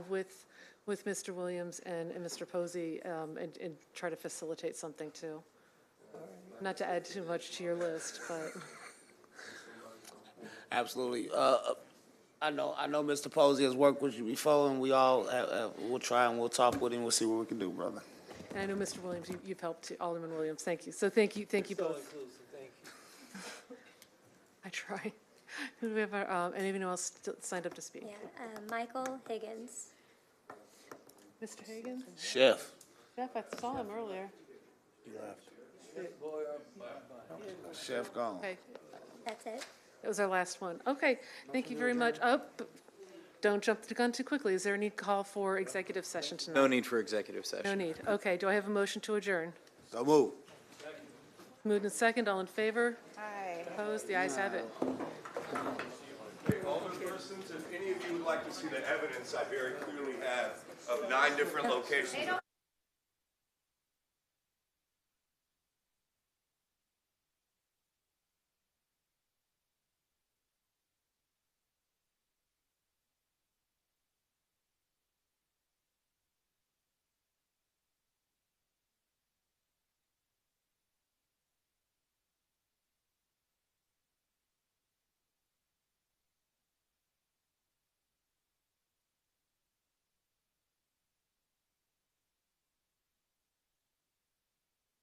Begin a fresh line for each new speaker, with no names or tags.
with, with Mr. Williams and, and Mr. Posey, um, and, and try to facilitate something too. Not to add too much to your list, but
Absolutely. Uh, I know, I know Mr. Posey has worked with you before, and we all, uh, uh, we'll try and we'll talk with him, we'll see what we can do, brother.
and I know Mr. Williams, you- you've helped too, Alderman Williams, thank you. So thank you, thank you both. I try. Who do we have, our, um, anyone else still signed up to speak?
Yeah, um, Michael Higgins.
Mr. Hagan?
Chef.
Jeff, I saw him earlier.
Chef gone.
Okay,
That's it.
that was our last one. Okay, thank you very much. Oh, b- don't jump the gun too quickly. Is there any call for executive session tonight?
No need for executive
No
session.
need. Okay, do I have a motion to adjourn?
So move.
Moved and second, all in favor? Aye. Opposed? The ayes have it.
Alderpersons, if any of you would like to see the evidence I very clearly have of nine different locations